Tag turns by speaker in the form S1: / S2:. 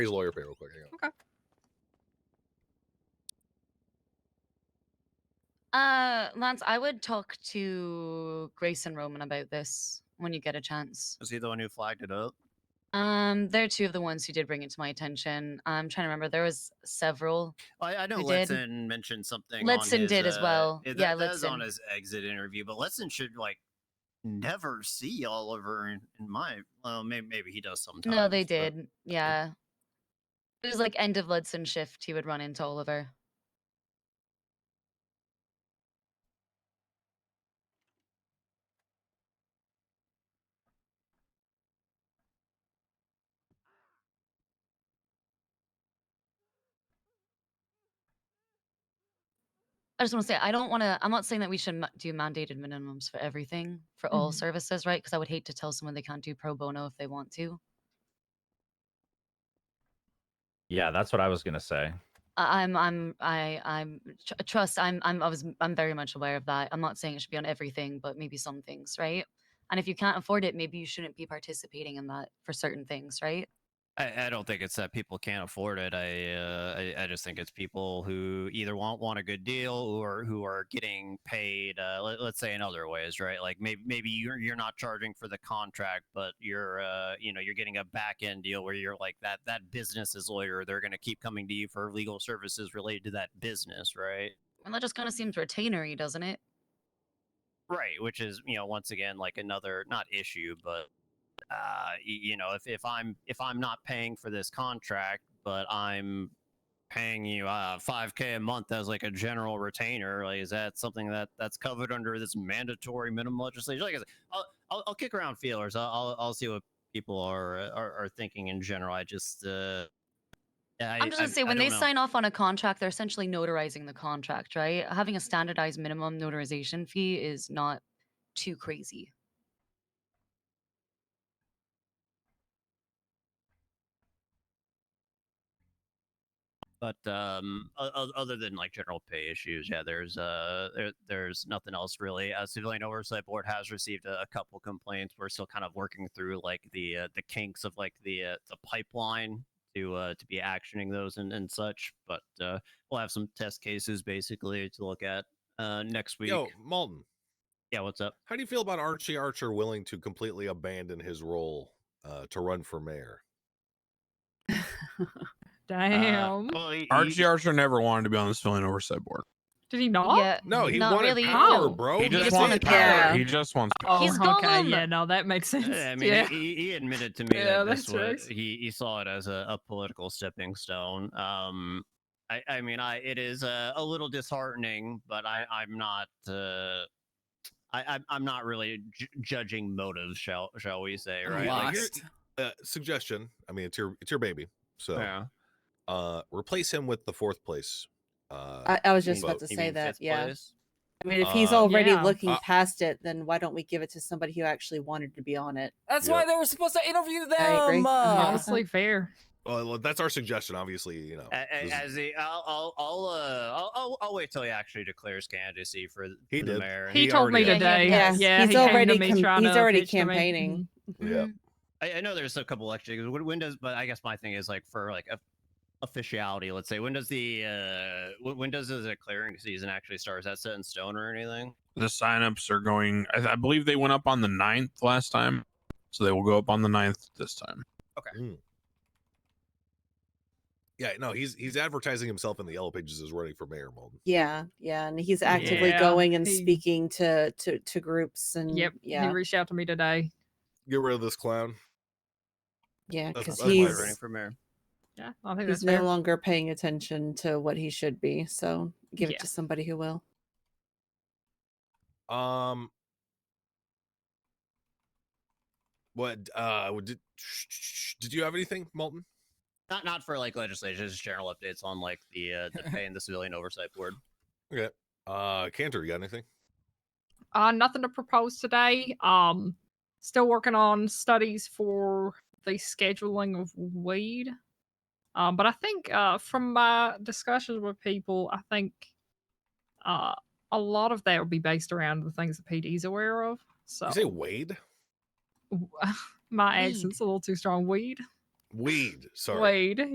S1: raise lawyer pay real quick. Hang on.
S2: Uh, Lance, I would talk to Grace and Roman about this when you get a chance.
S3: Is he the one who flagged it up?
S2: Um, they're two of the ones who did bring it to my attention. I'm trying to remember. There was several.
S3: I, I know
S2: Who did?
S3: Letson mentioned something.
S2: Letson
S3: on his,
S2: did as
S3: uh,
S2: well.
S3: it-
S2: Yeah,
S3: that, that was on
S2: Letson.
S3: his exit interview. But Letson should like never see Oliver in, in my. Well, maybe, maybe he does sometimes.
S2: no, they
S3: but-
S2: did. Yeah. It was like end of Ludson shift. He would run into Oliver. I just want to say I don't want to. I'm not saying that we should ma- do mandated minimums for everything for all
S4: Mhm.
S2: services, right? Because I would hate to tell someone they can't do pro bono if they want to.
S5: Yeah, that's what I was gonna say.
S2: I- I'm I'm I I'm tr- uh, trust I'm I'm I was I'm very much aware of that. I'm not saying it should be on everything, but maybe some things, right? And if you can't afford it, maybe you shouldn't be participating in that for certain things, right?
S3: I, I don't think it's that people can't afford it. I, uh, I I just think it's people who either want want a good deal or who are getting paid. Uh, let, let's say in other ways, right? Like maybe maybe you're you're not charging for the contract, but you're uh, you know you're getting a back end deal where you're like that that business is lawyer. They're going to keep coming to you for legal services related to that business, right?
S2: And that just kind of seems retainery, doesn't it?
S3: Right, which is you know once again like another not issue, but uh, y- you know if, if I'm if I'm not paying for this contract, but I'm paying you uh, five k a month as like a general retainer, like is that something that that's covered under this mandatory minimum legislation? Like I said, I'll, I'll, I'll kick around feelers. I'll, I'll I'll see what people are uh, are, are thinking in general. I just uh, I,
S2: I'm just gonna
S3: I-
S2: say
S3: I
S2: when they
S3: don't know.
S2: sign off on a contract, they're essentially notarizing the contract, right? Having a standardized minimum notarization fee is not too crazy.
S3: but um o- o- other than like general pay issues yeah there's uh there, there's nothing else really uh, civilian oversight board has received a, a couple complaints we're still kind of working through like the uh, the kinks of like the uh, the pipeline to uh to be actioning those and, and such but uh we'll have some test cases basically to look at uh next week
S1: Yo, Malton,
S3: yeah what's up
S1: how do you feel about Archie Archer willing to completely abandon his role uh, to run for mayor?
S4: Damn.
S3: uh, well, he- he-
S6: Archie Archer never wanted to be on the civilian oversight board.
S4: Did he not?
S2: Yeah,
S1: No, he
S2: not
S1: wanted
S2: really.
S1: power,
S4: No.
S1: bro.
S6: He just
S4: just
S6: wants
S4: wanted
S6: power.
S4: power.
S6: He just wants power.
S4: Oh,
S2: He's
S4: okay.
S2: Gollum.
S4: Yeah, no, that makes sense.
S3: I mean,
S4: yeah.
S3: he, he admitted to me
S4: Yeah,
S3: that this
S4: that's
S3: was,
S4: right.
S3: he, he saw it as a, a political stepping stone. Um, I, I mean, I it is a, a little disheartening, but I, I'm not. Uh, I, I'm- I'm not really ju- judging motives, shall shall we say?
S4: Oh,
S1: I'm
S3: Right? Like,
S1: you're- Uh, suggestion. I mean, it's your it's your baby. So
S3: yeah.
S1: uh, replace him with the fourth place. Uh,
S7: I, I was just
S1: Well,
S7: about to
S3: You
S7: say
S3: mean
S7: that.
S3: fifth
S7: Yeah.
S3: place?
S7: I mean, if he's
S1: Uh,
S7: already
S4: Yeah.
S7: looking
S1: Uh,
S7: past it, then why don't we give it to somebody who actually wanted to be on it?
S8: That's
S1: Yep.
S8: why they were supposed to interview them.
S7: I agree.
S8: uh,
S4: Honestly, fair.
S1: well, that's our suggestion. Obviously, you know,
S3: A- a-
S1: this is-
S3: As the, I'll, I'll, I'll, uh, I'll, I'll, I'll wait till he actually declares candidacy for, th-
S1: He
S3: for the
S1: did.
S3: mayor. and
S4: He,
S1: He
S4: told me
S1: already-
S2: Yeah, he
S4: today.
S2: has.
S4: yeah,
S7: He's
S4: he came to
S7: already
S4: me
S7: com-
S4: trying
S7: he's
S4: to
S7: already
S4: pitch to me.
S7: campaigning.
S1: yeah.
S3: I, I know there's a couple extra when, when does but I guess my thing is like for like a, officiality, let's say when does the uh when, when does the clearing season actually start? Is that set in stone or anything?
S6: The signups are going. I, I believe they went up on the 9th last time, so they will go up on the 9th this time.
S1: Yeah, no, he's he's advertising himself in the yellow pages as running for mayor, Malton.
S7: Yeah, yeah, and he's actively
S4: Yeah,
S7: going and
S4: he-
S7: speaking to to to groups and
S4: Mm-hmm. Yep. He
S7: yeah,
S4: reached out to me today.
S1: Get rid of this clown.
S7: yeah,
S1: that's-
S7: because
S1: that's my
S3: Why
S7: he's
S3: running for mayor.
S4: Yeah, I think
S7: he's
S4: that's
S7: no
S4: fair.
S7: longer paying attention to what he should be. So give
S4: Yeah.
S7: it to somebody who will.
S1: Um. What uh what did did you have anything, Malton?
S3: Not not for like legislation, just general updates on like the uh the pay and the civilian oversight board.
S1: Okay. Uh Cantor, you got anything?
S4: Uh, nothing to propose today. Um, still working on studies for the scheduling of weed. Um, but I think uh, from my discussions with people, I think uh, a lot of that will be based around the things that PD's aware of. So
S1: You say Wade?
S4: my
S2: Weed.
S4: accent's a little too strong. Weed,
S1: Weed. Sorry.
S4: weed.